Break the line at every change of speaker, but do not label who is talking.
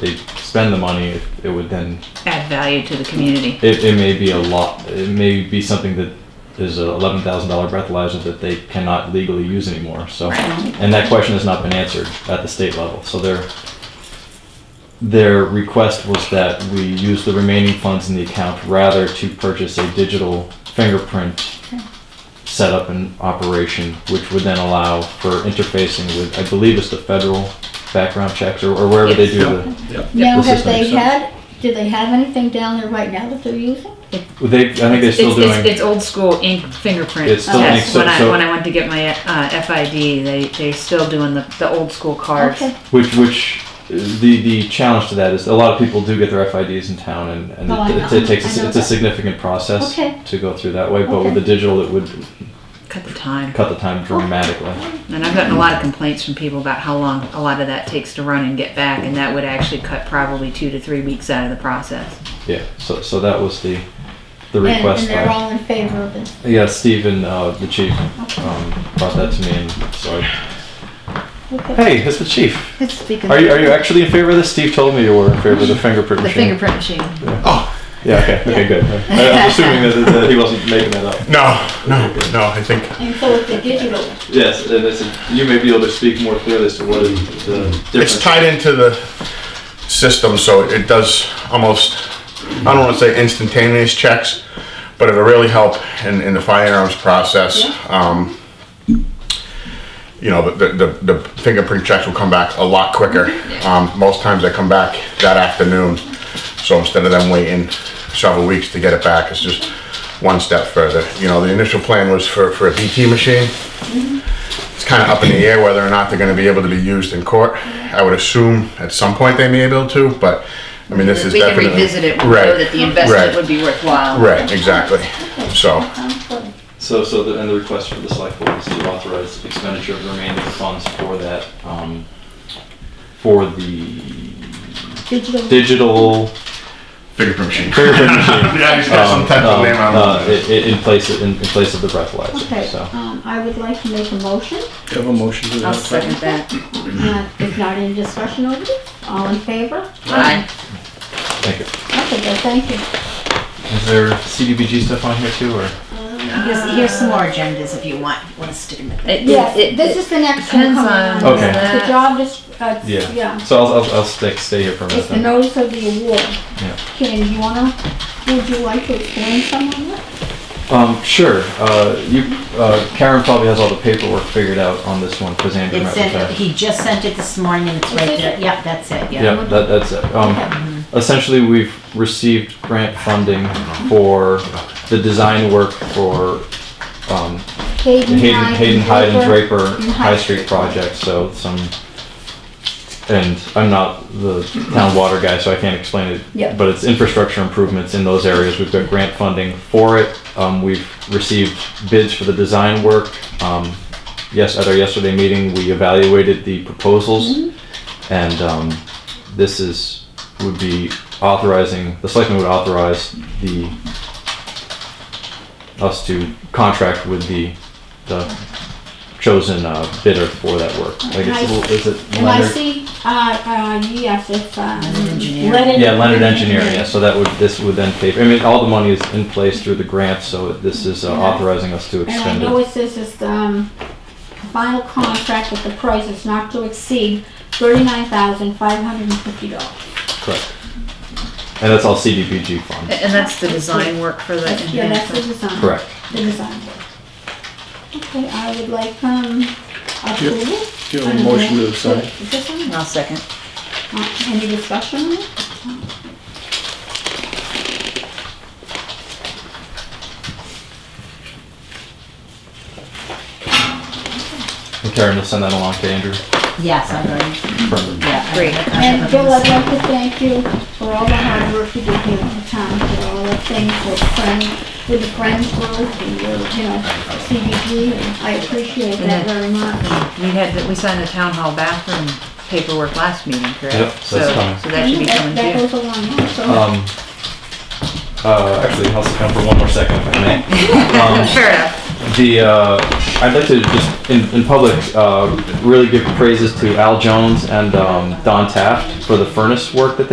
they spend the money, it, it would then
add value to the community.
it, it may be a lot. It may be something that is a eleven thousand dollar breathalyzer that they cannot legally use anymore. So,
Right.
and that question has not been answered at the state level. So their their request was that we use the remaining funds in the account rather to purchase a digital fingerprint setup and operation, which would then allow for interfacing with, I believe, it's the federal background checks or, or wherever they do the.
Now,
This
have
is
they
nice, huh?
had, do they have anything down there right now that they're using?
They, I think they're still
it's,
doing.
It's, it's old school ink fingerprint
It's
still
test.
ink, so-
when I
so-
when I went to get my uh, FID, they they still doing the, the old school cards.
Okay,
Which, which, uh, the the challenge to that is a lot of people do get their FIDs in town, and, and
Oh, I
it,
know.
it takes
I know
a, it's a
that.
significant process
Okay.
to go through that way. But with
Okay.
the digital, it would
Cut the time.
cut the time dramatically.
And I've gotten a lot of complaints from people about how long a lot of that takes to run and get back, and that would actually cut probably two to three weeks out of the process.
Yeah. So so that was the the
and,
request.
and they're
by-
all in favor of it.
yeah, Stephen, uh, the chief, um, brought that to me, and so I,
Uh,
Okay.
hey, it's the chief.
Let's speak of
Are you are you actually in favor of this? Steve told me you were in favor of the fingerprint
the
machine.
fingerprint machine.
Yeah. Okay. Okay. Good. I, I'm assuming that, that he wasn't making that up.
No, no, no, I think,
And so it's the digital.
Yes, and it's, you may be able to speak more clearly as to what is the difference.
it's tied into the system, so it does almost, I don't wanna say instantaneous checks, but it'll really help in, in the firearms process. Um, you know, the, the, the fingerprint checks will come back a lot quicker.
Mm-hmm.
Um, most times they come back that afternoon, so instead of them waiting several weeks to get it back, it's just one step further. You know, the initial plan was for, for a BT machine.
Mm-hmm.
It's kind of up in the air whether or not they're gonna be able to be used in court. I would assume at some point they may be able to, but, I mean, this is
we can
definitely.
revisit it. We know
Right,
that the investment
right.
would be worthwhile.
Right, exactly, so.
Sounds good.
So, so the, and the request for the select board is to authorize expenditure of the remaining funds for that, um, for the
Digital.
digital
Fingerprint machine.
fingerprint machine.
Yeah, he's got some type of
um,
name on
uh,
it.
i- i- in place, in, in place of the breathalyzer,
Okay,
so.
um, I would like to make a motion.
Have a motion to
I'll
that
second
effect?
that.
Uh, There's not any discussion over this. All in favor?
Aye.
Thank you.
Okay, well, thank you.
Is there CDBG stuff on here too, or?
Here's, here's some more agendas if you want, want to stick them in there.
It-
Yes,
it-
this is the next one
depends
coming
on
on.
Okay.
The
that.
job is, uh,
Yeah.
yeah,
So I'll, I'll, I'll stay, stay here for a minute
it's the
then.
notice of the award.
Yeah.
Ken, you wanna, would you like to explain some of it?
Um, sure, uh, you, uh, Karen probably has all the paperwork figured out on this one, because Andrew met
It's
with her.
in, he just sent it this morning and it's right
Is it?
there. Yep, that's it, yeah.
Yeah, that, that's it. Um, essentially, we've received grant funding for the design work for, um, the
Hayden
Hayden,
Hyde
Hayden
and
Hyde and
Draper.
Draper
and
High Street project, so some, and I'm not the town water guy, so I can't explain it.
Yeah.
But it's infrastructure improvements in those areas. We've got grant funding for it. Um, we've received bids for the design work. Um, yes, at our yesterday meeting, we evaluated the proposals. And, um, this is, would be authorizing, the selectmen would authorize the, us to contract with the, the chosen uh, bidder for that work. I guess,
Nice.
well, is it
And I
Leonard?
see, uh, uh, yes, it's, um.
engineer.
Yeah, Leonard Engineering, yeah, so that would, this would then pay, I mean, all the money is in place through the grant, so this is uh, authorizing us to
And I
extend
know
it.
it says it's, um, final contract with the price is not to exceed thirty-nine thousand five hundred and fifty dollars.
Correct. And that's all CDBG funds,
And that's the design work for the
Yeah, that's the
enhancement.
design.
correct.
The design work. Okay, I would like, um, approval. Oh,
Do you have a motion to
Sorry.
sign?
I'll second.
Uh, Any discussion on it?
And Karen will send that along to Andrew.
Yes, I've already,
Perfect.
yeah. I-
Great.
I- I-
And Bill, I'd like to thank you for all the hard work you did here in the town, for all the things with friends, with the Friends Group, and your, you know, CBG, and I appreciate that very much.
We had, the- we signed the town hall bathroom paperwork last meeting, correct?
Yep, so that's coming.
So that should be coming
That
too.
goes a long way, so.
Um, uh, actually, I'll sit down for one more second if I may. Um,
Fair enough.
The, uh, I'd like to just, in, in public, uh, really give praises to Al Jones and um, Don Taft for the furnace work that they.